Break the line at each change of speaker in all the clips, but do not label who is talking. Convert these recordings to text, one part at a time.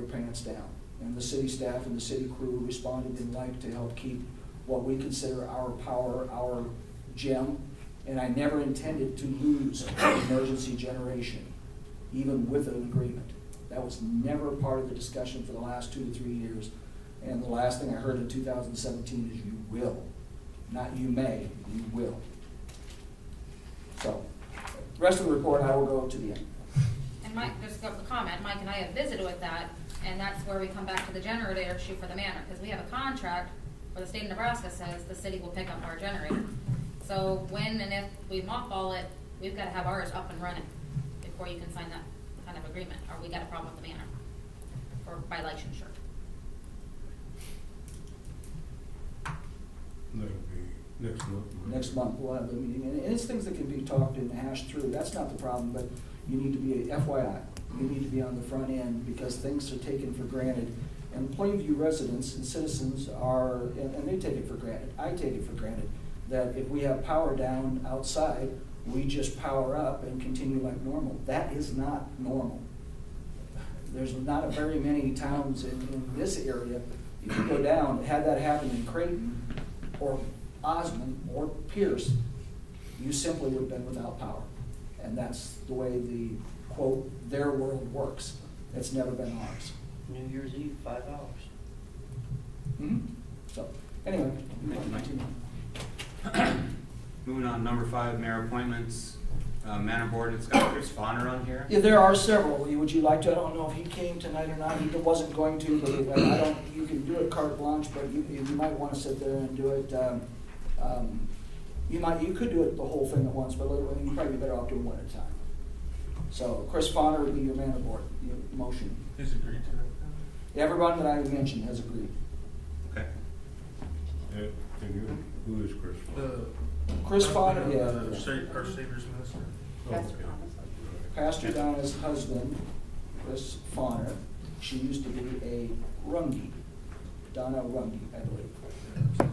pants down. And the city staff and the city crew responded in like to help keep what we consider our power, our gem. And I never intended to lose emergency generation, even with an agreement. That was never part of the discussion for the last two to three years. And the last thing I heard in two thousand seventeen is you will, not you may, you will. So, rest of the report I will go to the end.
And Mike, just got the comment, Mike and I have visited with that, and that's where we come back to the generator issue for the manor, because we have a contract where the state of Nebraska says the city will pick up our generator. So when and if we mothball it, we've gotta have ours up and running before you can sign that kind of agreement, or we got a problem with the manor, or by licensure.
That'll be next month. right?
next month, we'll have the meeting, and and it's things that can be talked and hashed through, that's not the problem, but you need to be, FYI, you need to be on the front end, because things are taken for granted. And Plainview residents and citizens are, and, and they take it for granted, I take it for granted, that if we have power down outside, we just power up and continue like normal, that is not normal there's not very many towns in, in this area, if you go down, had that happened in Creighton, or Osmond, or Pierce, you simply would have been without power. And that's the way the, quote, "their world" works, it's never been ours.
New Year's Eve, five hours.
Mhm. So, anyway.
Hmm? Thank you, Mike. Moving on, number five, mayor appointments, uh, manor board, it's got Chris Bonner on here.
Yeah, there are several, would you like to, I don't know if he came tonight or not, he wasn't going to, but uh, I don't, you can do it carte blanche, but you, you might wanna sit there and do it, um, um, you might, you could do it the whole thing at once, but you'd probably be better off doing one at a time. So Chris Bonner would be your man aboard, your motion.
Who's agreed to it?
Everyone that I mentioned has agreed.
Okay.
Yeah, And you, who is Chris?
The.
Chris Bonner,
Uh, the
yeah,
Sa- Our Savior's Minister.
Pastor
Pastor Donna's husband, Chris Bonner, she used to be a Rungy, Donna Rungy, I believe.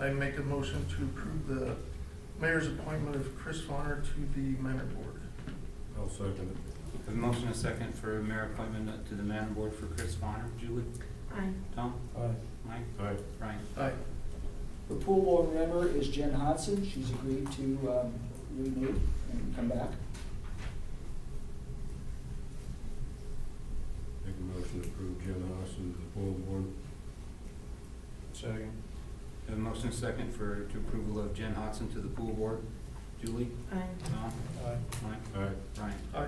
I make a motion to approve the mayor's appointment of Chris Bonner to the Manor Board.
I'll second
Have a motion and a second for mayor appointment to the manor board for Chris Bonner. Julie?
Aye.
Tom?
it. Aye.
Mike?
Aye.
Brian?
Aye.
The pool board member is Jen Hodson, she's agreed to um, renew and come back.
Make a motion to approve Jim Austin to the full board.
Second.
Have a motion and a second for, to approval of Jen Hodson to the pool board. Julie?
Aye.
Tom?
Aye.
Mike?
Aye.
Brian?
Aye.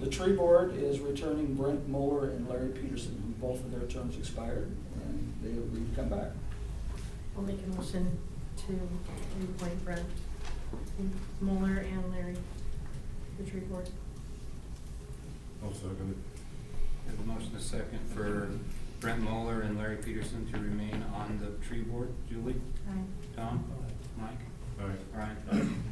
The tree board is returning Brent Mueller and Larry Peterson, who both of their terms expired, and they agreed to come back.
I'll make a motion to reappoint Brent Mueller and Larry to the tree board.
I'll second it.
Have a motion and a second for Brent Moeller and Larry Peterson to remain on the tree board. Julie?
Aye.
Tom? Mike?
Aye.
Brian?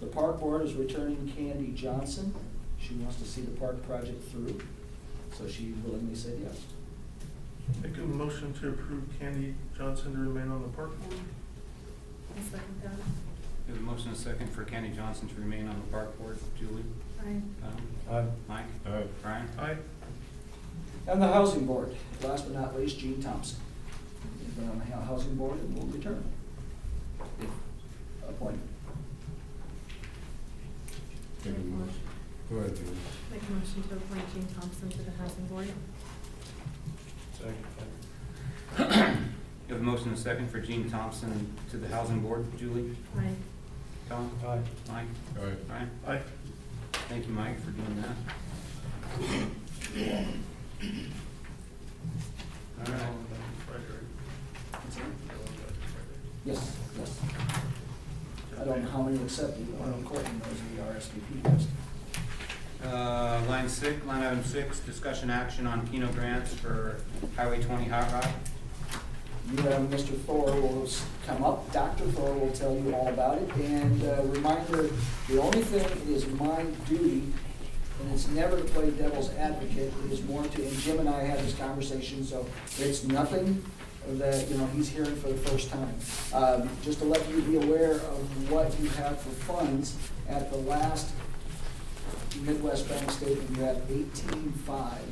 The park board is returning Candy Johnson, she wants to see the park project through, so she willingly said yes.
Make a motion to approve Candy Johnson to remain on the park board.
I'll second that.
Have a motion and a second for Kenny Johnson to remain on the park board. Julie?
Aye.
Tom?
Aye.
Mike?
Aye.
Brian?
Aye.
And the housing board, last but not least, Gene Thompson. He's been on the hou- housing board and will return. if Appointed.
Make a motion. Go ahead, Jim.
Make a motion to appoint Gene Thompson to the housing board.
You have a motion and a second for Gene Thompson to the Housing Board. Julie?
Aye.
Tom?
Aye.
Mike?
Aye.
Brian?
Aye.
Thank you, Mike, for doing that. All right.
Yes, yes. I don't know how many accepted, but I'm courting those in the RSVP list.
Uh, Line six, line item six, discussion action on Keno grants for Highway 20 Hot Rod.
You and Mr. Thor will s- come up, Dr. Thor will tell you all about it, and uh, reminder, the only thing that is my duty, and it's never to play devil's advocate, it is more to, and Jim and I had this conversation, so it's nothing that, you know, he's hearing for the first time. Um, Just to let you be aware of what you have for funds at the last Midwest Bank statement, you're at eighteen-five.